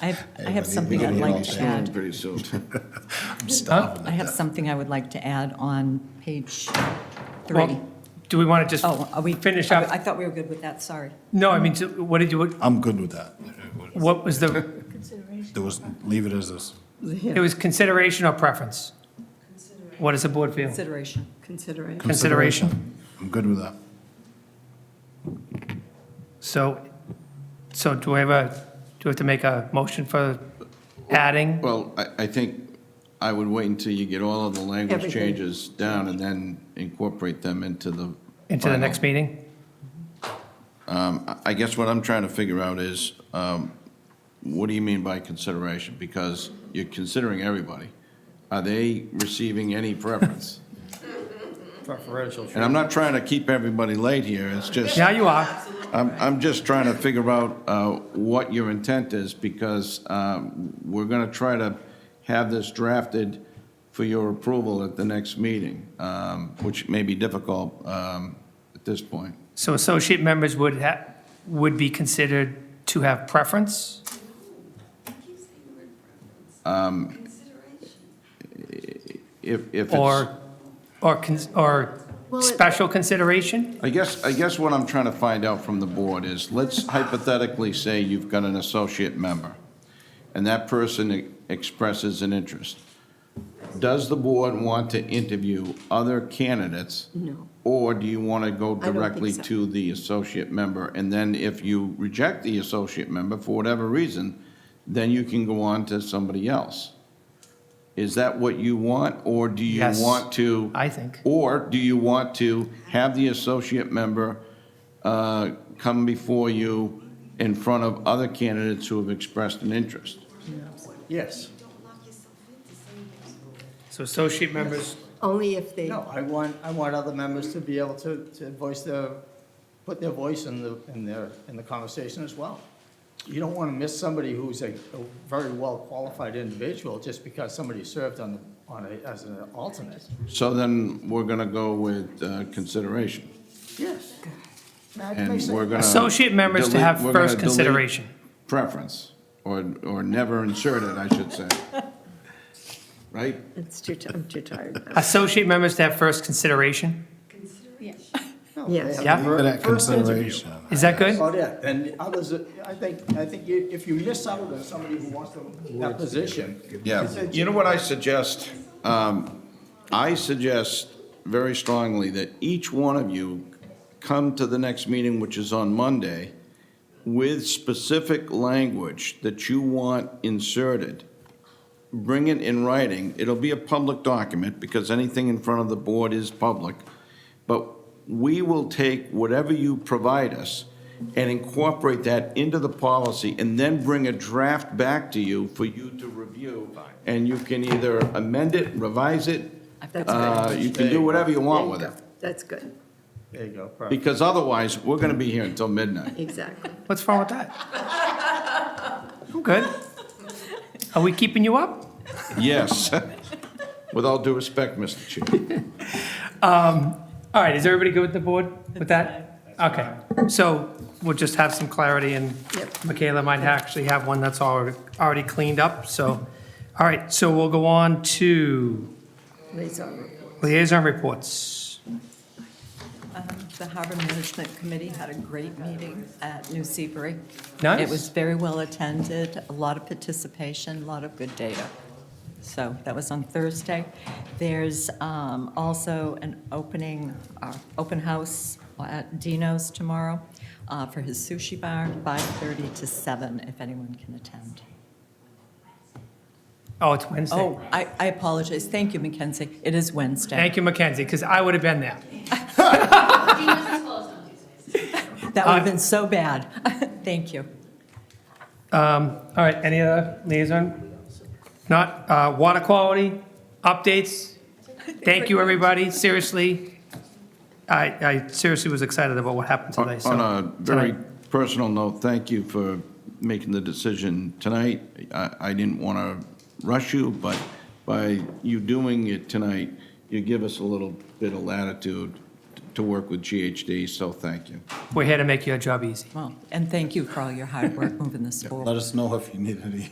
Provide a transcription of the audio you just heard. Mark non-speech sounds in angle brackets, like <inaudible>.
I have, I have Uh, We something get I'd it all like to soon, add. Pretty <laughs> soon. I have something I would like to add on page three. Well, Do we want to just Oh, are we? finish I- up? I thought we were good with that, sorry. No, I mean, so what did you, I'm good with that. what was the, There was, leave it as is. it was consideration or preference? What does the board feel? Consideration. Consideration. Consideration. I'm good with that. So, so do we have a, do we have to make a motion for adding? Well, I, I think I would wait until you get all of the language Everything. changes down and then incorporate them into the. Into the final. next meeting? Um, I- I guess what I'm trying to figure out is, um, what do you mean by consideration? Because you're considering everybody. Are they receiving any preference? Preferential And I'm not trying to keep everybody late here, it's just. Now you are. I'm, I'm just trying to figure out uh, what your intent is, because um, we're going to try to have this drafted for your approval at the next meeting, um, which may be difficult um, at this point. So associate members would ha, would be considered to have preference? If, if it's, Or, or, cons- or special consideration? I guess, I guess what I'm trying to find out from the board is, let's hypothetically say you've got an associate member, and that person e- expresses an interest. Does the board want to interview other candidates? No. Or do you want to go think directly so. to the associate member? And then if you reject the associate member for whatever reason, then you can go on to somebody else. Is that what you want, or do you Yes, want to? I think. Or do you want to have the associate member uh, come before you in front of other candidates who have expressed an interest? Yes. So associate members, Only if they, No, I want, I want other members to be able to, to voice their, put their voice in the, in their, in the conversation as well. You don't want to miss somebody who's a, a very well-qualified individual just because somebody served on, the- on a, as an alternate. So then we're going to go with uh, consideration. Yes. That And makes we're sense. going to. associate members to have first consideration. Preference, or, or never insert it, I should say. Right? it's too, ti- I'm too tired. now. Associate members to have first consideration? No, Yes. they have Yeah. the Leave it at first interview. consideration. Is that good? About it, and others, I think, I think you- if you miss out on somebody who wants to, that position. it's Yeah. a- You know what I suggest? Um, I suggest very strongly that each one of you come to the next meeting, which is on Monday, with specific language that you want inserted. Bring it in writing. It'll be a public document because anything in front of the board is public. But we will take whatever you provide us and incorporate that into the policy and then bring a draft back to you for you to review. And you can either amend it, revise it, That's uh, good. you can do whatever you There want you with go. it. That's good, There you go, perfect. Because otherwise, we're going to be here <laughs> until midnight. exactly. What's wrong with that? I'm good. Are we keeping you up? Yes. <laughs> With all due respect, Mr. Chair. All right, is everybody good with the board with that? Okay, so we'll just have some clarity and Yep. Michaela might actually have one that's already, already cleaned up, so. All right, so we'll go on to Liaison report. liaison reports. Um, The Harbor Management Committee had a great meeting at New Seabury. Nice. It was very well attended, a lot of participation, a lot of good data. So that was on Thursday. There's um, also an opening, uh, open house at Dino's tomorrow uh, for his sushi bar, 5:30 to 7, if anyone can attend. Oh, it's Wednesday. Oh, I I apologize. Thank you, Mackenzie. It is Wednesday. Thank you, Mackenzie, because I would have been there. That Uh, would have been so bad. <laughs> Thank you. All right, any other liaison? Not, uh, water quality, updates? Thank you, everybody, seriously. I, I seriously was excited about what happened today, so. On a very tonight. personal note, thank you for making the decision tonight. I, I didn't want to rush you, but by you doing it tonight, you give us a little bit of latitude to work with GHD, so thank you. We're here to make your job easy. Well, and thank you for all your hard work moving this forward. Let us know if you need any.